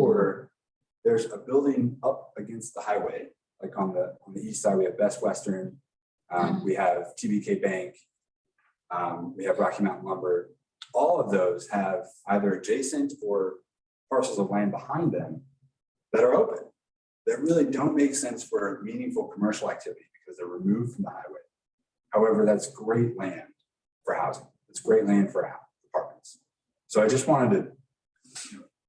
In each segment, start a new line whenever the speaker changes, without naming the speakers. Or there's a building up against the highway, like on the, on the east side, we have Best Western. Um, we have TBK Bank. Um, we have Rocky Mountain Lumber. All of those have either adjacent or parcels of land behind them that are open. That really don't make sense for meaningful commercial activity because they're removed from the highway. However, that's great land for housing. It's great land for hou- apartments. So I just wanted to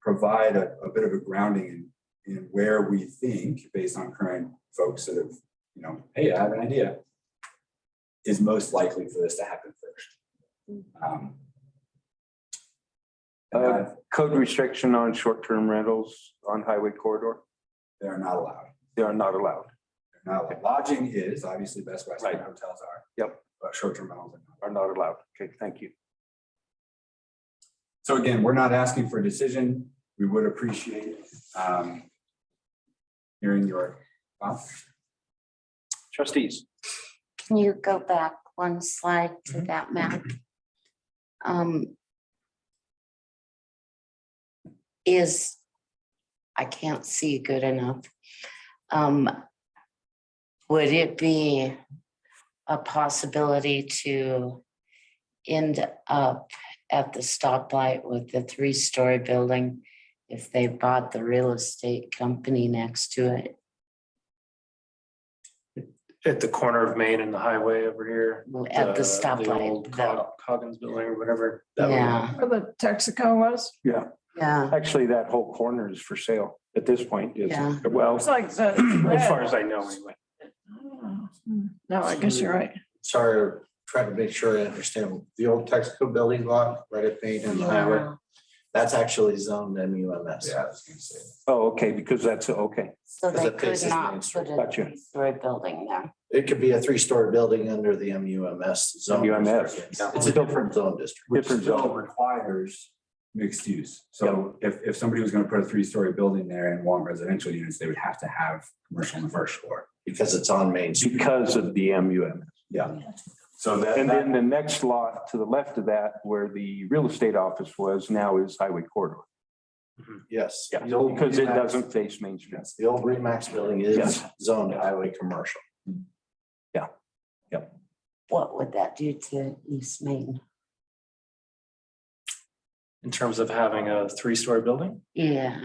provide a, a bit of a grounding in, in where we think, based on current folks that have, you know, hey, I have an idea, is most likely for this to happen first. Um, and
Uh,
that
Code restriction on short-term rentals on highway corridor,
They are not allowed.
they are not allowed.
They're not allowed. Lodging is, obviously, Best Western
Right.
hotels are.
Yep.
But short-term rentals are not.
Are not allowed. Okay, thank you.
So again, we're not asking for a decision. We would appreciate um, hearing your, thoughts.
Trustees,
Can you go back one slide to that map? Um. Is, I can't see good enough. Um. Would it be a possibility to end up at the stoplight with the three-story building? If they bought the real estate company next to it,
at the corner of Main and the highway over here. Uh,
at the
old
stoplight?
Cog- Coggins Building or whatever. that was.
Yeah,
Where the Texaco was?
yeah.
actually, that whole corner is for sale at this point. is-
Yeah.
Well,
It's like the.
As far as I know, anyway.
No, I guess you're right.
sorry, trying to make sure I understand, the old Texaco building lot, right at Main and Highway,
Yeah.
that's actually zoned MUMS.
yeah, I was gonna say.
oh, okay, because that's, okay,
So
Because
they
it
could
faces Main
not
Street.
put a
Gotcha.
three-story building there.
It could be a three-story building under the MUMS zone.
MUMS.
district. It's a different zone district.
which
Different zone.
still requires mixed use. So if, if somebody was gonna put a three-story building there and want residential units, they would have to have commercial on the first floor.
Because it's on Main Street.
because of the MUM.
So that,
And then
that-
the next lot to the left of that, where the real estate office was, now is highway corridor.
Yes.
Yeah,
The old
because it
Remax-
doesn't face Main Street.
yes, The old Remax building is
Yes.
zoned highway commercial.
What would that do to East Main?
In terms of having a three-story building,
Yeah,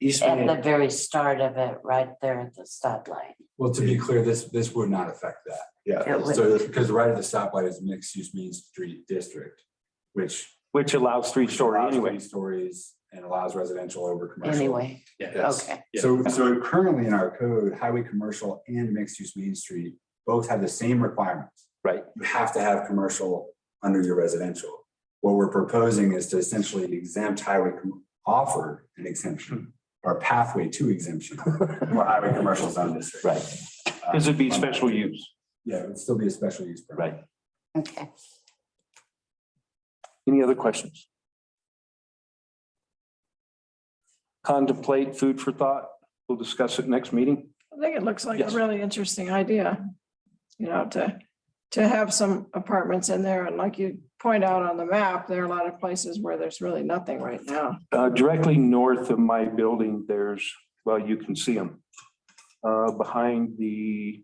East
at the
Main,
very start of it, right there at the stoplight.
well, to be clear, this, this would not affect that.
yeah,
It would-
So this, because right at the stoplight is mixed-use Main Street District, which.
Which allows three story
allows
anyway.
three Stories and allows residential over commercial.
Anyway,
yes.
okay,
Yeah.
So, so currently in our code, highway commercial and mixed-use Main Street both have the same requirements.
Right.
You have to have commercial under your residential. What we're proposing is to essentially exempt highway, com- offer an
Hmm.
exemption or a pathway to exemption for highway commercial zone district.
Right, because it'd be special use.
Yeah, it would still be a special use permit.
Right.
okay.
Any other questions? Contemplate food for thought. We'll discuss it next meeting.
I think it looks like a
Yes.
really interesting idea. You know, to, to have some apartments in there and like you point out on the map, there are a lot of places where there's really nothing right now.
Uh, directly north of my building, there's, well, you can see them. Uh, behind the,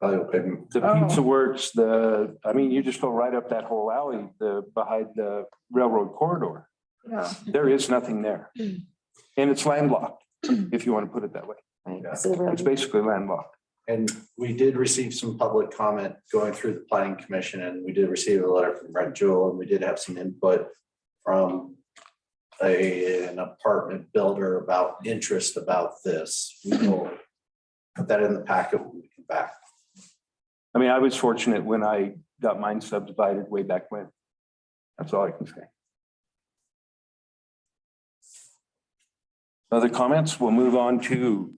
Probably open.
the
Oh.
Pizza Works, the, I mean, you just go right up that whole alley, the, behind the railroad corridor.
Yeah,
There is nothing there. And it's landlocked, if you want to put it that way.
right,
Yeah.
zero.
It's basically landlocked.
And we did receive some public comment going through the planning commission and we did receive a letter from Brent Jewel and we did have some input from a, an apartment builder about interest about this. We will put that in the packet when we come back.
I mean, I was fortunate when I got mine subdivided way back when. That's all I can say. Other comments? We'll move on to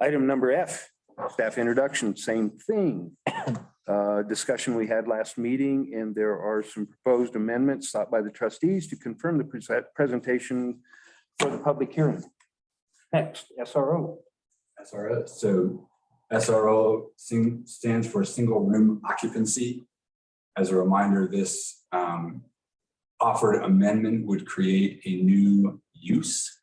item number F, staff introduction, same thing. Uh, Discussion we had last meeting, and there are some proposed amendments sought by the trustees to confirm the prese- presentation for the public hearing. Next, SRO.
SRO, so SRO sing- stands for single room occupancy. As a reminder, this um, offered amendment would create a new use